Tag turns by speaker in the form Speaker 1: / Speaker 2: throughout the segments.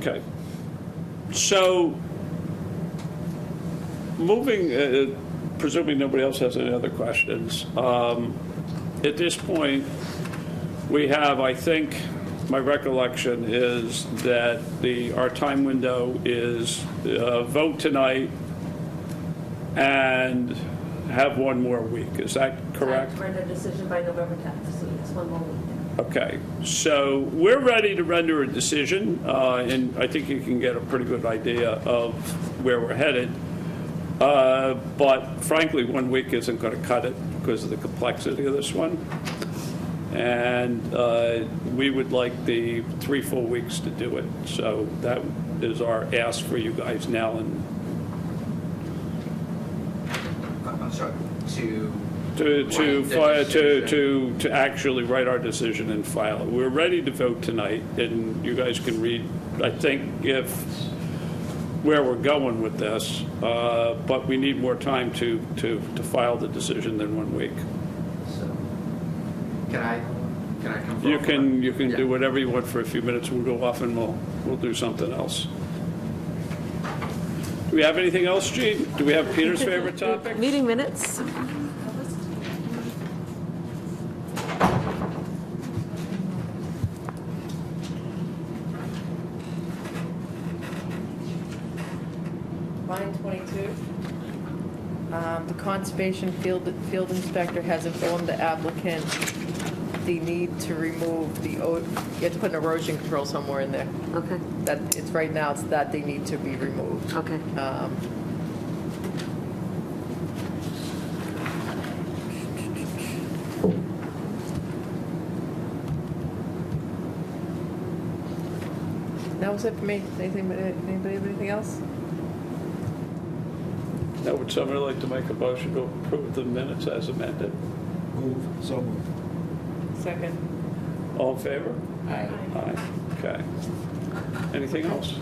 Speaker 1: Okay. So, moving, uh, presuming nobody else has any other questions, um, at this point, we have, I think, my recollection is that the, our time window is uh, vote tonight and have one more week. Is that correct?
Speaker 2: I read a decision by November 10th, so it's one more week.
Speaker 1: Okay, so we're ready to render a decision, uh, and I think you can get a pretty good idea of where we're headed. Uh, But frankly, one week isn't going to cut it because of the complexity of this one. And uh, we would like the three full weeks to do it. So that is our ask for you guys now and
Speaker 3: Uh, I'm sorry, to.
Speaker 1: to, to,
Speaker 3: Right,
Speaker 1: fi-
Speaker 3: that
Speaker 1: to,
Speaker 3: decision.
Speaker 1: to, to actually write our decision and file it. We're ready to vote tonight, and you guys can read, I think, if, where we're going with this, uh, but we need more time to, to, to file the decision than one week.
Speaker 3: So, Can I, can I come?
Speaker 1: You
Speaker 3: forward?
Speaker 1: can, you can do
Speaker 3: Yeah.
Speaker 1: whatever you want for a few minutes, we'll go off and we'll, we'll do something else. Do we have anything else, Gene? Do we have Peter's favorite topic?
Speaker 2: Meeting minutes?
Speaker 4: Line 22, um, the conservation field, field inspector has informed the applicant the need to remove the, o- you have to put an erosion control somewhere in there.
Speaker 2: Okay,
Speaker 4: That, it's, right now, it's that they need to be removed.
Speaker 2: okay.
Speaker 4: Um, That was it for me. Anything, anybody, have anything else?
Speaker 1: Now, would somebody like to make a motion to approve the minutes as amended?
Speaker 5: Move, so moved.
Speaker 4: Second.
Speaker 1: All in favor? Aye. Okay. Anything else?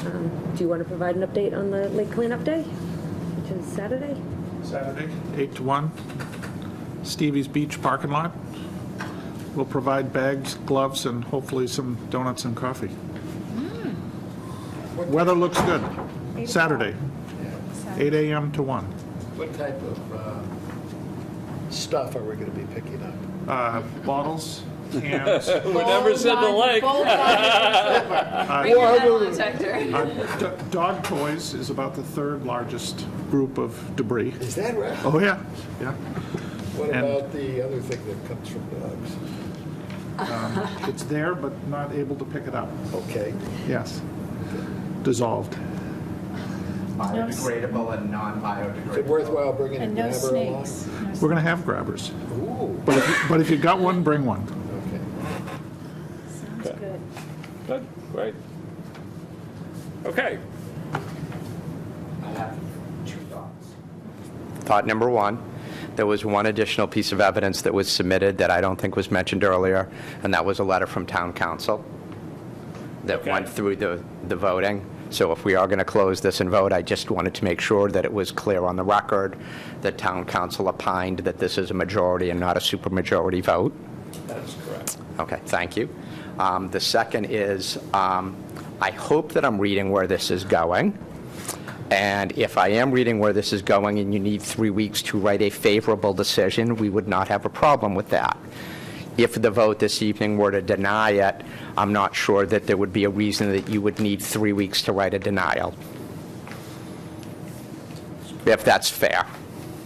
Speaker 2: Um, Do you want to provide an update on the lake cleanup day, which is Saturday?
Speaker 6: Saturday, 8 to 1, Stevie's Beach parking lot. We'll provide bags, gloves, and hopefully some donuts and coffee. Weather looks good. Saturday, 8 AM to 1.
Speaker 5: What type of uh, stuff are we going to be picking up?
Speaker 6: Uh, Bottles, cans, uh,
Speaker 1: Whatever's in the lake.
Speaker 6: d- dog toys is about the third largest group of debris.
Speaker 5: Is that right?
Speaker 6: Oh, yeah, yeah.
Speaker 5: What
Speaker 6: and-
Speaker 5: about the other thing that comes from dogs?
Speaker 6: It's there, but not able to pick it up.
Speaker 5: Okay.
Speaker 6: Yes. Dissolved.
Speaker 3: Biodegradable and
Speaker 5: Is it
Speaker 3: non-biodegradable.
Speaker 5: worthwhile bringing a
Speaker 7: And no
Speaker 5: grabber along?
Speaker 7: snakes.
Speaker 6: We're going to have grabbers.
Speaker 5: Ooh,
Speaker 6: But if, you- but if you got one, bring one.
Speaker 5: okay.
Speaker 7: Sounds good.
Speaker 1: Good, great. Okay.
Speaker 3: I have two thoughts. Thought number one, there was one additional piece of evidence that was submitted that I don't think was mentioned earlier, and that was a letter from town council that
Speaker 1: Okay.
Speaker 3: went through the, the voting. So if we are going to close this and vote, I just wanted to make sure that it was clear on the record that town council opined that this is a majority and not a supermajority vote.
Speaker 1: That's correct.
Speaker 3: Okay, thank you. Um, The second is, um, I hope that I'm reading where this is going. And if I am reading where this is going and you need three weeks to write a favorable decision, we would not have a problem with that. If the vote this evening were to deny it, I'm not sure that there would be a reason that you would need three weeks to write a denial. If that's fair.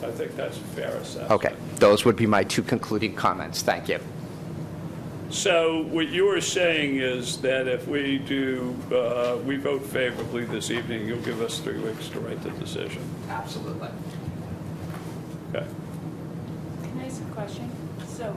Speaker 1: I think that's a fair assessment.
Speaker 3: Okay, those would be my two concluding comments. Thank you.
Speaker 1: So what you are saying is that if we do, uh, we vote favorably this evening, you'll give us three weeks to write the decision.
Speaker 3: Absolutely.
Speaker 1: Okay.
Speaker 7: Can I ask a question? So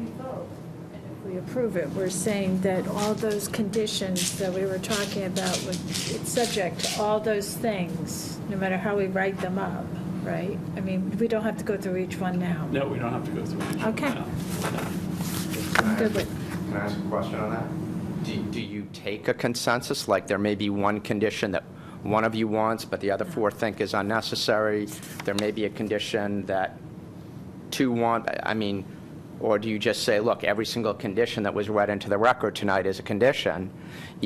Speaker 7: we vote, and if we approve it, we're saying that all those conditions that we were talking about would, it's subject to all those things, no matter how we write them up, right? I mean, we don't have to go through each one now.
Speaker 1: No, we don't have to go through each one
Speaker 7: Okay.
Speaker 1: now.
Speaker 3: Can
Speaker 7: Good with-
Speaker 3: I ask a question on that? Do, do you take a consensus, like there may be one condition that one of you wants, but the other four think is unnecessary? There may be a condition that two want, I- I mean, or do you just say, look, every single condition that was read into the record tonight is a condition,